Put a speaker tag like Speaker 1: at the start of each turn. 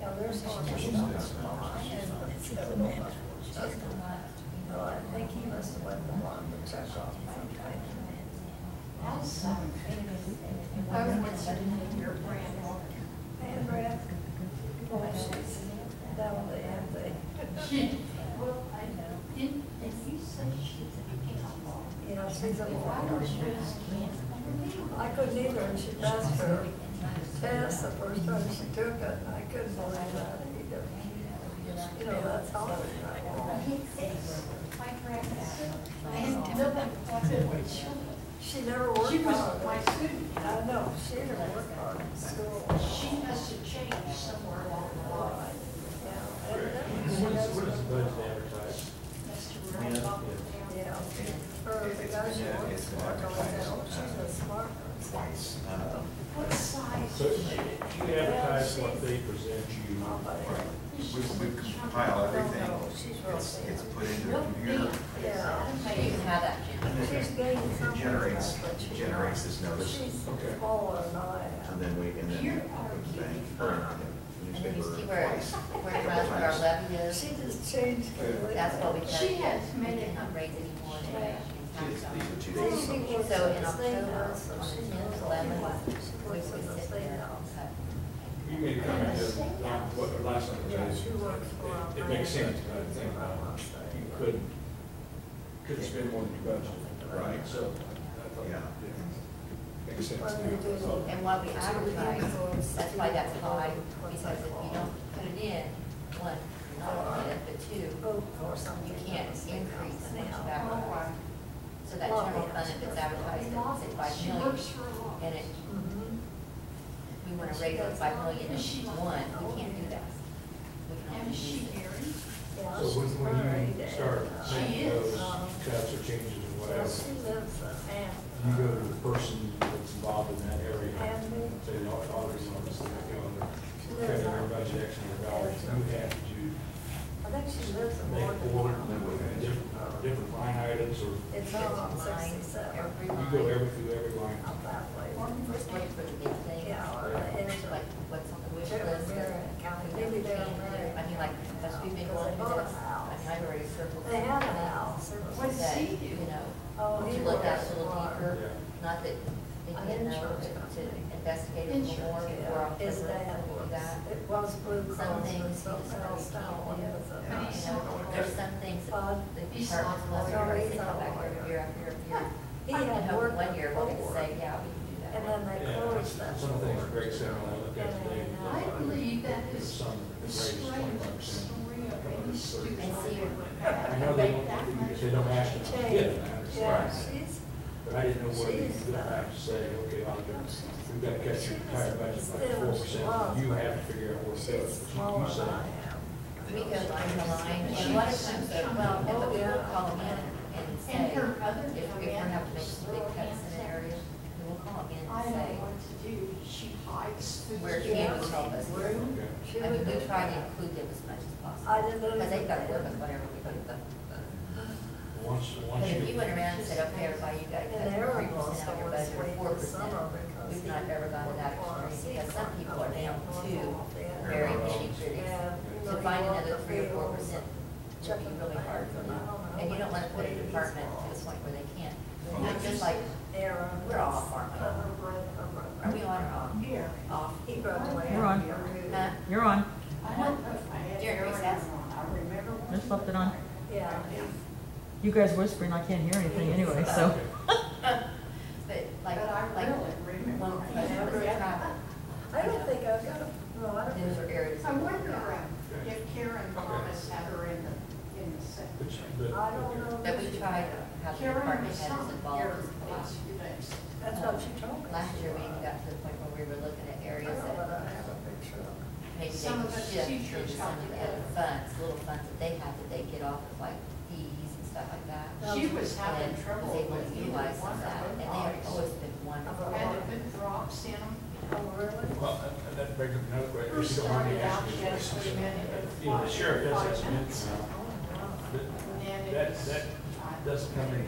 Speaker 1: Now, there's one that's mine, and it's the other one. No, I think he must have went the one that took off my time. And Brad, boy, she's, that'll be empty.
Speaker 2: Well, I know, didn't, if you said she's a cannibal.
Speaker 1: You know, she's a
Speaker 2: If I were
Speaker 1: lawyer.
Speaker 2: she was cannibal.
Speaker 1: I couldn't either, and she passed her test the first time she took it, and I couldn't believe that either. You know, that's all.
Speaker 2: My grandma. I had nobody wanted my children.
Speaker 1: She never worked
Speaker 2: She was my
Speaker 1: hard.
Speaker 2: student.
Speaker 1: I know, she didn't work hard in school.
Speaker 2: She must have changed somewhere along the line.
Speaker 1: Yeah, evidently she
Speaker 3: What is,
Speaker 1: knows
Speaker 3: what is
Speaker 1: what-
Speaker 3: Bud's advertised?
Speaker 2: Must have run up and down.
Speaker 1: Yeah, her, the guy she works for, I don't know, she's a smart person.
Speaker 4: um,
Speaker 2: What size
Speaker 3: So
Speaker 2: is
Speaker 3: you
Speaker 2: she?
Speaker 3: you advertise what they present you.
Speaker 4: We, we compile everything, it's, it's put into a computer,
Speaker 1: Yeah.
Speaker 2: Maybe how that
Speaker 4: and then
Speaker 1: She's gaining
Speaker 4: it
Speaker 1: something.
Speaker 4: generates,
Speaker 1: about what she
Speaker 4: it generates
Speaker 1: knows.
Speaker 4: this notice,
Speaker 1: She's
Speaker 3: Okay.
Speaker 1: all an eye out.
Speaker 4: and then we, and then
Speaker 2: Here are
Speaker 4: the bank,
Speaker 2: you.
Speaker 4: or the
Speaker 5: And then you see
Speaker 4: newspaper
Speaker 5: where,
Speaker 4: twice,
Speaker 5: where
Speaker 4: a
Speaker 5: the
Speaker 4: couple
Speaker 5: rest of our
Speaker 4: times.
Speaker 5: levy is,
Speaker 1: She just changed completely.
Speaker 5: that's what we can.
Speaker 2: She has made it
Speaker 5: not raise anymore than that.
Speaker 4: These
Speaker 5: It's not
Speaker 4: are
Speaker 5: so-
Speaker 4: two
Speaker 1: She works at the
Speaker 4: days.
Speaker 5: So in
Speaker 1: state
Speaker 5: October,
Speaker 1: house, so she
Speaker 5: 10th,
Speaker 1: knows all
Speaker 5: 11th,
Speaker 1: that. She works
Speaker 5: we
Speaker 1: at
Speaker 5: would
Speaker 1: the
Speaker 5: sit
Speaker 1: state
Speaker 5: there
Speaker 1: house.
Speaker 5: and cut.
Speaker 3: You made a comment that, uh, what, the last time.
Speaker 1: Yeah, she works for our.
Speaker 3: It- It makes sense, but I think uh, you couldn't, couldn't spend more than your budget.
Speaker 4: Right.
Speaker 3: So. I thought-
Speaker 4: Yeah.
Speaker 3: Makes sense.
Speaker 1: Well, they do.
Speaker 3: So-
Speaker 5: And what we advertise, that's why that's high, because if you don't put it in, one, you're not gonna get it, but two,
Speaker 1: Oh, or something.
Speaker 5: you can't
Speaker 1: at the
Speaker 5: increase
Speaker 1: state house
Speaker 5: the much of
Speaker 1: now.
Speaker 5: that. So that general fund, if it's advertised at six by
Speaker 2: She
Speaker 5: million,
Speaker 2: works for a law.
Speaker 5: and it,
Speaker 1: Mhm.
Speaker 5: we wanna raise it by million and one, we can't do that. We can only
Speaker 2: And is she
Speaker 5: use it.
Speaker 2: married?
Speaker 1: Yeah,
Speaker 3: So when,
Speaker 1: she's
Speaker 3: when
Speaker 1: married
Speaker 3: you
Speaker 1: and,
Speaker 3: start
Speaker 1: uh,
Speaker 3: making
Speaker 2: She
Speaker 3: those
Speaker 2: is.
Speaker 3: cuts or changes
Speaker 1: Well,
Speaker 3: or whatever,
Speaker 1: she lives in
Speaker 3: you
Speaker 1: Ann.
Speaker 3: go to the person that's involved in that area.
Speaker 1: And me.
Speaker 3: Say, "No, I always want to see that go under, cut
Speaker 1: Lives
Speaker 3: their
Speaker 1: on-
Speaker 3: budget X number of dollars, you have to
Speaker 1: I think she lives in
Speaker 3: make four
Speaker 1: Morgan.
Speaker 3: different, different line items or
Speaker 1: It's all on sixty-seven,
Speaker 5: Every
Speaker 3: You go
Speaker 5: line,
Speaker 3: every, through every line.
Speaker 1: out that way.
Speaker 5: first one for the big thing.
Speaker 1: Yeah, or the edge
Speaker 5: like
Speaker 1: of-
Speaker 5: what's on the wish list, because
Speaker 1: Maybe
Speaker 5: we never
Speaker 1: they're
Speaker 5: change it. I mean, like, as we've been going through this, I mean, I've already circled.
Speaker 1: They have a
Speaker 5: some of that,
Speaker 1: house. It was-
Speaker 2: What's
Speaker 5: That,
Speaker 2: he do?
Speaker 5: you
Speaker 1: Oh,
Speaker 5: know,
Speaker 1: he
Speaker 5: to look at
Speaker 1: works
Speaker 5: a
Speaker 1: for-
Speaker 5: little deeper,
Speaker 3: Yeah.
Speaker 5: not that they
Speaker 1: An
Speaker 5: didn't know,
Speaker 1: insurance
Speaker 5: but to
Speaker 1: company.
Speaker 5: investigate a little more
Speaker 1: Yeah,
Speaker 5: before October.
Speaker 1: His dad
Speaker 5: before
Speaker 1: was,
Speaker 5: that.
Speaker 1: it was Blue
Speaker 5: Some
Speaker 1: Cross or
Speaker 5: things, he's
Speaker 1: something else down on
Speaker 4: Yeah.
Speaker 1: his.
Speaker 5: you know, there's some things that
Speaker 1: But
Speaker 5: the
Speaker 2: he's not
Speaker 5: department's less,
Speaker 2: a lawyer.
Speaker 5: they come back every year after every year.
Speaker 1: He
Speaker 5: And
Speaker 1: had
Speaker 5: hope
Speaker 1: worked
Speaker 5: one year we can
Speaker 1: before.
Speaker 5: say, yeah, we can do that.
Speaker 1: And then they
Speaker 3: Yeah,
Speaker 1: closed
Speaker 3: some
Speaker 1: that.
Speaker 3: things break down, I look at today.
Speaker 2: I believe that is
Speaker 3: Some
Speaker 2: the
Speaker 3: raise
Speaker 2: strange story of any student.
Speaker 5: And see,
Speaker 3: I know they don't, they don't ask you to get
Speaker 1: Change,
Speaker 3: it, I
Speaker 1: yeah,
Speaker 3: understand.
Speaker 1: she's,
Speaker 3: But I didn't know whether you could have to say, okay, I'll do, we've got to cut your entire budget by four percent, you have to figure out what to do.
Speaker 1: she's smaller than I am.
Speaker 3: You say,
Speaker 5: We go line by line, and a lot of times, they're- well, no,
Speaker 1: oh,
Speaker 5: but we will call them in and say,
Speaker 2: And her other
Speaker 5: if we if we have to make some big cuts in an area, we will call them in
Speaker 2: I know
Speaker 5: and say,
Speaker 2: what to do. She hides the.
Speaker 5: where
Speaker 2: kids.
Speaker 5: can we help us? I
Speaker 3: okay.
Speaker 1: She
Speaker 5: mean,
Speaker 1: would
Speaker 5: we
Speaker 1: do
Speaker 5: try to
Speaker 1: that.
Speaker 5: include them as much as
Speaker 1: I
Speaker 5: possible,
Speaker 1: didn't know.
Speaker 5: because they've got to work with whatever we give them.
Speaker 3: Once,
Speaker 5: But
Speaker 3: once
Speaker 5: if you
Speaker 3: you,
Speaker 5: went around and said, okay, everybody, you got to cut
Speaker 1: And they're
Speaker 5: three
Speaker 1: almost
Speaker 5: percent out of your
Speaker 1: always
Speaker 5: budget,
Speaker 1: waiting
Speaker 5: or four
Speaker 1: for summer
Speaker 5: percent,
Speaker 1: because.
Speaker 5: we've not ever gotten that extreme, because some people are down to
Speaker 1: to
Speaker 5: very nitty gritty. To find another three or four percent would be really hard for them. And you don't want to put a department to this point where they can't. It's just like, we're all farming. are we on or off?
Speaker 2: Here.
Speaker 5: Off.
Speaker 1: He graduated.
Speaker 6: We're
Speaker 5: Huh?
Speaker 6: on.
Speaker 1: here.
Speaker 6: You're on.
Speaker 2: I don't know if I had.
Speaker 5: During recess?
Speaker 2: I remember. when-
Speaker 6: Just left it on.
Speaker 1: Yeah.
Speaker 6: You guys whispering, I can't hear anything anyway, so.
Speaker 5: But
Speaker 2: But
Speaker 5: like,
Speaker 2: I
Speaker 5: like,
Speaker 2: really remember.
Speaker 5: one question was travel.
Speaker 1: I don't think I've got a, no, I don't.
Speaker 5: Those are areas.
Speaker 2: I wonder uh, if Karen Thomas had her in the, in the
Speaker 3: but,
Speaker 2: secretary.
Speaker 3: but.
Speaker 1: I don't know.
Speaker 5: That we tried to have the
Speaker 2: Karen
Speaker 5: department
Speaker 2: was
Speaker 5: heads
Speaker 2: some
Speaker 5: involved.
Speaker 2: here
Speaker 5: as
Speaker 2: the
Speaker 5: well.
Speaker 2: last few days.
Speaker 1: That's what she told me.
Speaker 5: Last year, we even got to the point where we were looking at
Speaker 1: I
Speaker 5: areas
Speaker 1: don't know that
Speaker 5: that
Speaker 1: I have a picture of it.
Speaker 5: maybe they
Speaker 2: Some of
Speaker 5: could
Speaker 2: us
Speaker 5: shift
Speaker 2: teachers
Speaker 5: into
Speaker 2: got
Speaker 5: some of the other
Speaker 2: together.
Speaker 5: funds, little funds that they have that they get off of like fees and stuff like that.
Speaker 2: She was
Speaker 5: And
Speaker 2: having
Speaker 5: was
Speaker 2: trouble
Speaker 5: able
Speaker 2: with
Speaker 5: to
Speaker 2: either
Speaker 5: utilize some
Speaker 2: one
Speaker 5: of that,
Speaker 2: of
Speaker 5: and they
Speaker 2: her
Speaker 5: have
Speaker 2: eyes.
Speaker 5: always been wonderful.
Speaker 2: Had to put drops in them.
Speaker 1: Oh, really?
Speaker 3: Well, that- that brings up another
Speaker 2: First
Speaker 3: question. If you
Speaker 2: started out,
Speaker 3: don't mind me
Speaker 2: she
Speaker 3: asking
Speaker 2: has
Speaker 3: this
Speaker 2: three
Speaker 3: question,
Speaker 2: minutes.
Speaker 3: You know, the sheriff does have some
Speaker 2: Five minutes.
Speaker 3: income,
Speaker 1: Oh, wow.
Speaker 3: but
Speaker 2: And then
Speaker 3: that,
Speaker 2: it's- uh,
Speaker 3: that doesn't come in